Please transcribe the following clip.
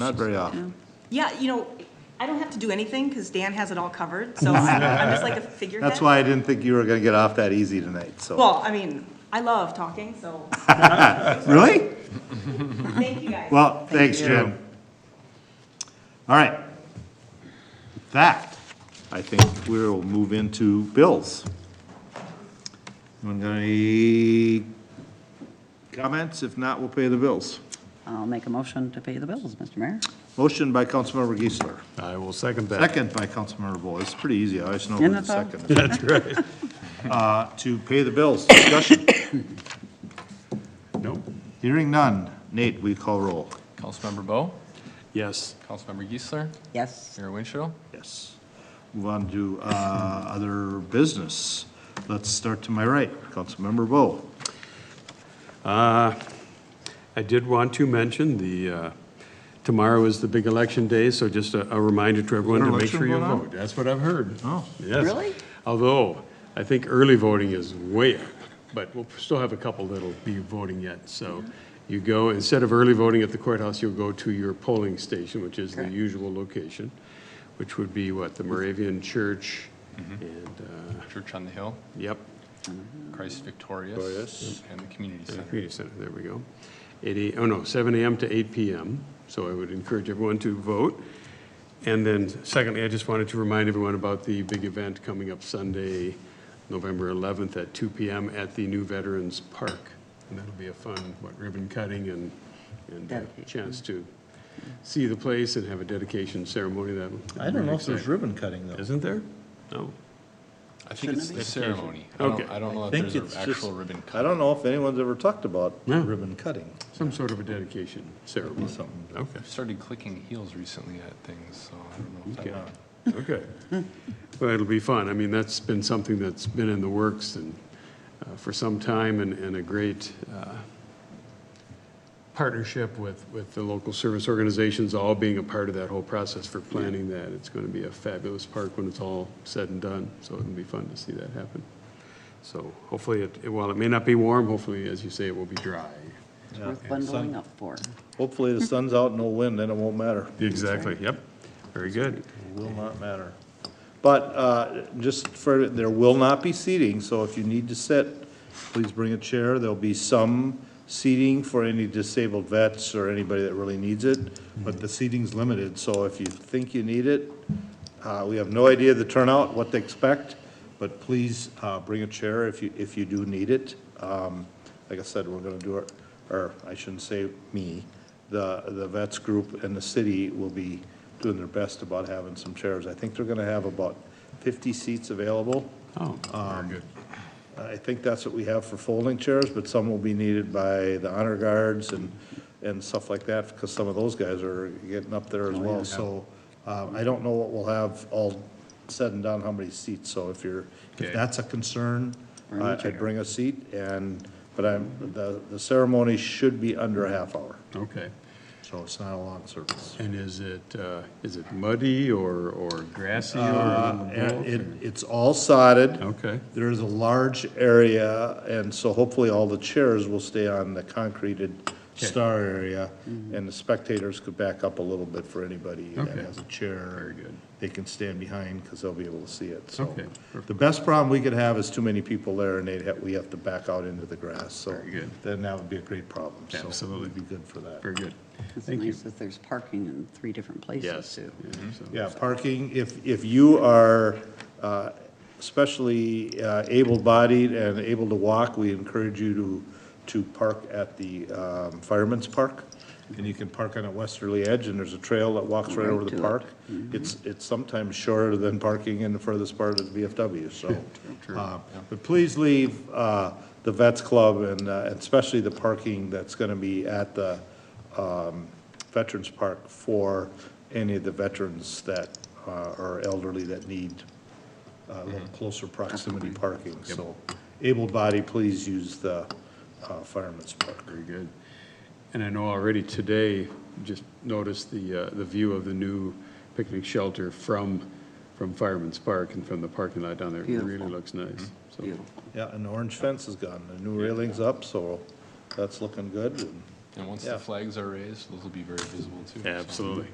Not very often. Yeah, you know, I don't have to do anything because Dan has it all covered, so I'm just like a figurehead. That's why I didn't think you were gonna get off that easy tonight, so. Well, I mean, I love talking, so Really? thank you guys. Well, thanks, Jim. All right. That, I think we'll move into bills. Anyone got any comments? If not, we'll pay the bills. I'll make a motion to pay the bills, Mr. Mayor. Motion by Councilmember Geisler, I will second that. second by Councilmember Bowe. It's pretty easy. I always know who And the that's all. second is. That's right. Uh, to pay the bills. Discussion. Nope. Hearing none. Nate, we call roll. Councilmember Bo, Yes. Councilmember Geisler, Yes. Mayor Winchell. Yes. Move on to uh, other business. Let's start to my right. Councilmember Bo. I did want to mention the, uh, tomorrow is the big election day, so just a a reminder to everyone to make election sure you going on? vote. That's what I've heard. Oh. Yes. Really? Although, I think early voting is way up, but we'll still have a couple that'll be voting yet. So you go, instead of early voting at the courthouse, you'll go to your polling station, which is the usual location, which would be what, the Moravian Church Mm-hmm. and, uh, Church on the Hill, yep, Christ Victorious, and the Community Yeah, Center. Community Center, there we go. Eight a- oh no, seven AM to eight PM, so I would encourage everyone to vote. And then secondly, I just wanted to remind everyone about the big event coming up Sunday, November eleventh at two PM at the new Veterans Park. And that'll be a fun, what, ribbon cutting and, and a Dedication. chance to see the place and have a dedication ceremony that. ribbon cutting though. Isn't there? No. I think it's the ceremony. I Okay. don't, I don't know if there's an actual ribbon I cut. don't know if anyone's ever talked about No. ribbon cutting. Some sort of a dedication ceremony. something. Okay. I've started clicking heels recently at things, so I don't know. if Okay. that- Okay. Well, it'll be fun. I mean, that's been something that's been in the works and, uh, for some time and, and a great, uh, partnership with, with the local service organizations, all being a part of that whole process for planning that. It's going to be a fabulous park when it's all said and done, so it'll be fun to see that happen. So hopefully, it, while it may not be warm, hopefully, as you say, it will be dry. It's worth bundling up for. Hopefully the sun's out and no wind, then it won't matter. Exactly, yep. Very good. Will not matter. But uh, just for, there will not be seating, so if you need to sit, please bring a chair. There'll be some seating for any disabled vets or anybody that really needs it, but the seating's limited, so if you think you need it, uh, we have no idea the turnout, what to expect, but please uh, bring a chair if you, if you do need it. Um, Like I said, we're going to do our, or I shouldn't say me, the, the vets group and the city will be doing their best about having some chairs. I think they're going to have about 50 seats available. Oh, very good. I think that's what we have for folding chairs, but some will be needed by the honor guards and, and stuff like that, because some of those guys are getting up there as well. So uh, I don't know what we'll have all said and done, how many seats, so if you're, if Okay. that's a concern, a I- I'd bring a seat, and, but I'm, the, the ceremony should be under a half hour, Okay. so it's not a long service. And is it, uh, is it muddy or, or grassy or? Uh, both and It, or- it's all sodded. Okay. There is a large area, and so hopefully all the chairs will stay on the concreted star area, and the spectators could back up a little bit for anybody that Okay. has a chair. Very good. They can stand behind, because they'll be able to see it, so. Okay, perfect. The best problem we could have is too many people there, and they'd have, we have to back out into the grass, so. Very good. Then that would be a great problem, so. Absolutely. It'd be good for that. Very good. It's Thank you. nice that there's parking in three different places Yes. too. yeah, so- Yeah, parking, if, if you are uh, especially uh, able-bodied and able to walk, we encourage you to, to park at the um, Fireman's Park. And you can park on a westerly edge, and there's a trail that walks right Right over the to it. Mm-hmm. park. It's, it's sometimes shorter than parking in the furthest part of the VFW, so. uh, But please leave uh, the Vets Club and uh, and especially the parking that's going to be at the, um, Veterans Park for any of the veterans that uh, are elderly that need uh, a little closer proximity parking. So able-bodied, please use the uh, Fireman's Park. Very good. And I know already today, just noticed the, uh, the view of the new picnic shelter from, from Fireman's Park and from the parking lot down there. It really Beautiful. looks nice. So Beautiful. Yeah, and the orange fence is gone, the new railing's up, so that's looking good. and And once the Yeah. flags are raised, those will be very visible too. so. Absolutely.